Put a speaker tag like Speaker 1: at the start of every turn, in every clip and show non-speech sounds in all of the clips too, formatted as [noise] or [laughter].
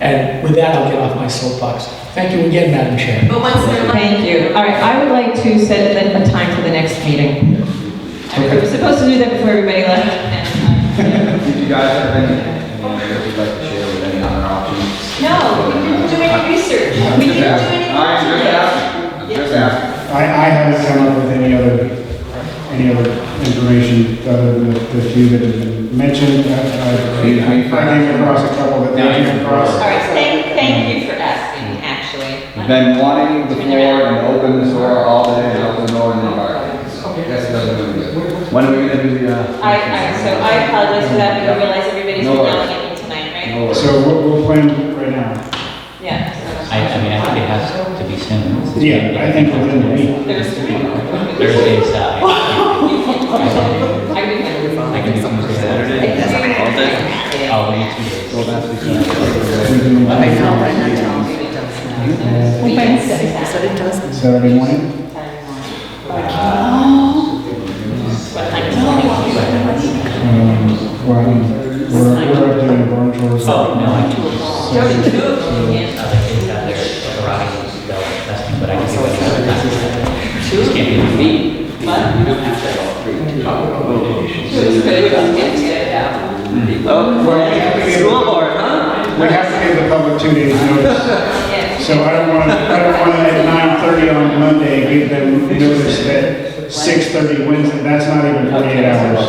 Speaker 1: And with that, I'll get off my soapbox. Thank you again, Madam Chair.
Speaker 2: But once they're like,
Speaker 3: Thank you. All right, I would like to set the- a time for the next meeting. I mean, We were supposed to do that before everybody left.
Speaker 2: um,
Speaker 3: and, uh,
Speaker 4: If you guys have any, anything that you'd like to share with any other options?
Speaker 2: no, we didn't do any research.
Speaker 4: I'm
Speaker 2: We didn't
Speaker 4: just
Speaker 2: do
Speaker 4: asking.
Speaker 2: any.
Speaker 4: I'm just
Speaker 2: research.
Speaker 4: asking, I'm just asking.
Speaker 5: I, I haven't come up with any other, any other information other than the the few that have been mentioned. I- I I
Speaker 4: We- we-
Speaker 5: came across a couple that they came
Speaker 2: All
Speaker 5: across.
Speaker 2: right, thank, thank you for asking, actually.
Speaker 4: We've been wanting the floor and open the door all day, and open the door in the bar. Yes, it doesn't do good. When are we gonna do the, uh?
Speaker 2: I, I, so I apologize for that, we didn't realize everybody's
Speaker 4: No
Speaker 2: been
Speaker 4: worries.
Speaker 2: yelling at me tonight, right?
Speaker 4: No worries.
Speaker 5: So we'll, we'll plan right now.
Speaker 2: Yeah.
Speaker 6: I, I mean, I think it has to be soon. This is-
Speaker 5: Yeah, I think within the week.
Speaker 2: There's three.
Speaker 6: Thursday's, uh, I
Speaker 2: I can do
Speaker 6: can do- I can do Tuesday, Saturday. Oh, we need two days.
Speaker 4: Well, that's because.
Speaker 5: we can-
Speaker 3: Wednesday.
Speaker 5: Saturday morning? Um, well, we're, we're up doing barn chores.
Speaker 6: Oh, no, I can
Speaker 2: Jody,
Speaker 5: So-
Speaker 2: two of you can.
Speaker 6: Other kids out there, karate, they'll test me, but I can do it. Just can't be the feet.
Speaker 2: What?
Speaker 6: You don't have to.
Speaker 2: Jody, but we don't get to that.
Speaker 4: Oh, for school board, huh?
Speaker 5: We have to give the public two days notice.
Speaker 2: Yeah.
Speaker 5: So I don't want to, I don't want to at nine thirty on Monday, give them notice that six thirty Wednesday, that's not even forty-eight hours.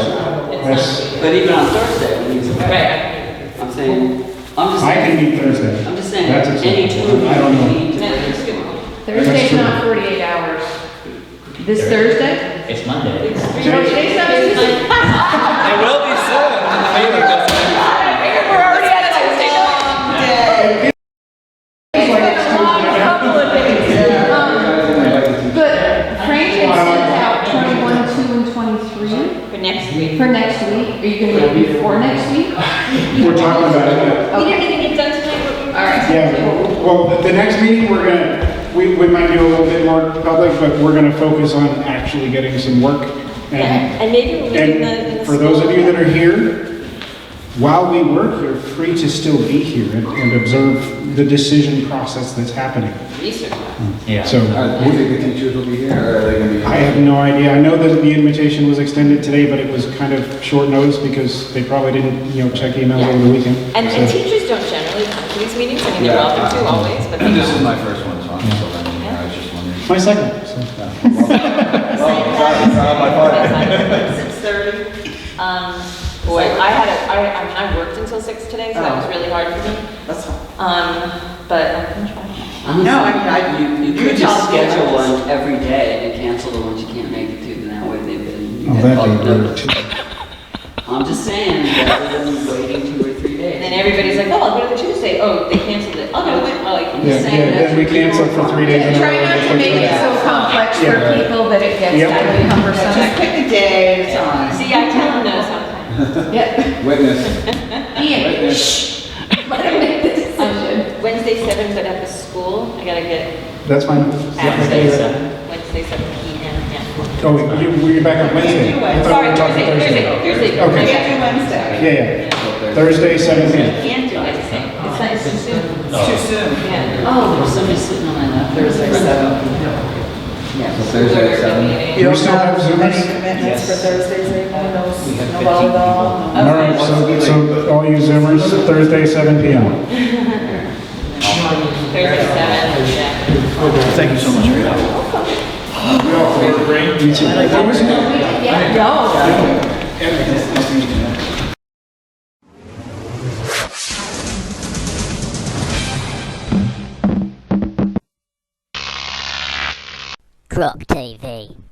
Speaker 5: That's,
Speaker 7: But even on Thursday, when he's-
Speaker 2: Right.
Speaker 7: I'm saying, I'm just
Speaker 5: I
Speaker 7: saying,
Speaker 5: can meet Thursday.
Speaker 7: I'm just saying,
Speaker 5: That's acceptable.
Speaker 7: any two of you
Speaker 5: I don't know.
Speaker 7: need to-
Speaker 2: That's good.
Speaker 8: Thursday's not 48 hours. This Thursday?
Speaker 6: It's Monday.
Speaker 8: No, today's not Tuesday. [laughs]
Speaker 7: There will be soon.
Speaker 8: It's been a long couple of days. Um, But Frank has sent out 21, 2, and 23
Speaker 2: For next week.
Speaker 8: for next week. Are you going to do it before next week?
Speaker 5: We're talking about it.
Speaker 2: We didn't even get done tonight, but we were. All right.
Speaker 5: Yeah, well, the next meeting, we're gonna, we, we might do a little bit more public, but we're gonna focus on actually getting some work. And,
Speaker 2: And maybe we'll leave the.
Speaker 5: and for those of you that are here, while we work, you're free to still be here and, and observe the decision process that's happening.
Speaker 2: Research.
Speaker 6: Yeah.
Speaker 5: So,
Speaker 4: Uh, do you think the teachers will be here, or are they gonna be?
Speaker 5: I have no idea. I know that the invitation was extended today, but it was kind of short notice because they probably didn't, you know, check emails over the weekend.
Speaker 2: And, and
Speaker 5: So-
Speaker 2: teachers don't generally come to these meetings, I mean, they're welcome to always, but they
Speaker 4: This is
Speaker 2: don't.
Speaker 4: my first one, so I'm still learning, I was just wondering.
Speaker 5: My second, so.
Speaker 2: Six thirty. Um, boy, I had a, I, I mean, I worked until six today, so that was really hard for me.
Speaker 7: Oh. That's fine.
Speaker 2: Um, but I can try.
Speaker 7: No, I mean, I, you, you could just
Speaker 2: tell me.
Speaker 7: schedule one every day and cancel the ones you can't make it to, and that way they've been.
Speaker 5: Oh,
Speaker 7: they've
Speaker 5: that'd
Speaker 7: bugged
Speaker 5: be
Speaker 7: them.
Speaker 5: rude too.
Speaker 7: I'm just saying, rather than waiting two or three days.
Speaker 2: And then everybody's like, oh, I'll go to the Tuesday, oh, they canceled it, oh, no, it went, oh, I can
Speaker 5: Yeah,
Speaker 2: just
Speaker 5: yeah,
Speaker 2: say that.
Speaker 5: then we cancel for three days in a row.
Speaker 8: Try not to make it so complex for people that it gets
Speaker 5: Yep.
Speaker 8: totally cumbersome.
Speaker 7: pick a day at a time.
Speaker 2: See, I tell them no sometimes.
Speaker 4: [laughs]
Speaker 8: Yep.
Speaker 4: Witness,
Speaker 8: Ian,
Speaker 4: witness.
Speaker 8: [laughs] let him make the decision.
Speaker 2: Um, Wednesday seven, but at the school, I gotta get
Speaker 5: That's fine.
Speaker 2: Wednesday seven, Wednesday seven P M, yeah.
Speaker 5: Oh, wait, you, were you back on Wednesday? I thought we
Speaker 2: Sorry,
Speaker 5: were talking
Speaker 2: Thursday, Thursday, Thursday.
Speaker 5: Okay,
Speaker 2: Wednesday.
Speaker 5: yeah, yeah. Thursday, seven P.M.
Speaker 2: Can't do Wednesday, it's not, it's too soon,
Speaker 7: It's too soon.
Speaker 2: yeah.
Speaker 7: Oh, there's somebody sitting on my lap. Thursday, seven. Yeah.
Speaker 4: Thursday at seven.
Speaker 5: You still have Zoomers?
Speaker 6: Commitments for
Speaker 9: Thursdays anymore, no,
Speaker 6: We have no volleyball, 15 people.
Speaker 5: All right, so, so all you Zoomers, Thursday, seven P M.
Speaker 2: Thursday seven, yeah.
Speaker 4: Thank you so much for your help.
Speaker 5: You too. What was your name?
Speaker 8: No.
Speaker 10: Crop TV.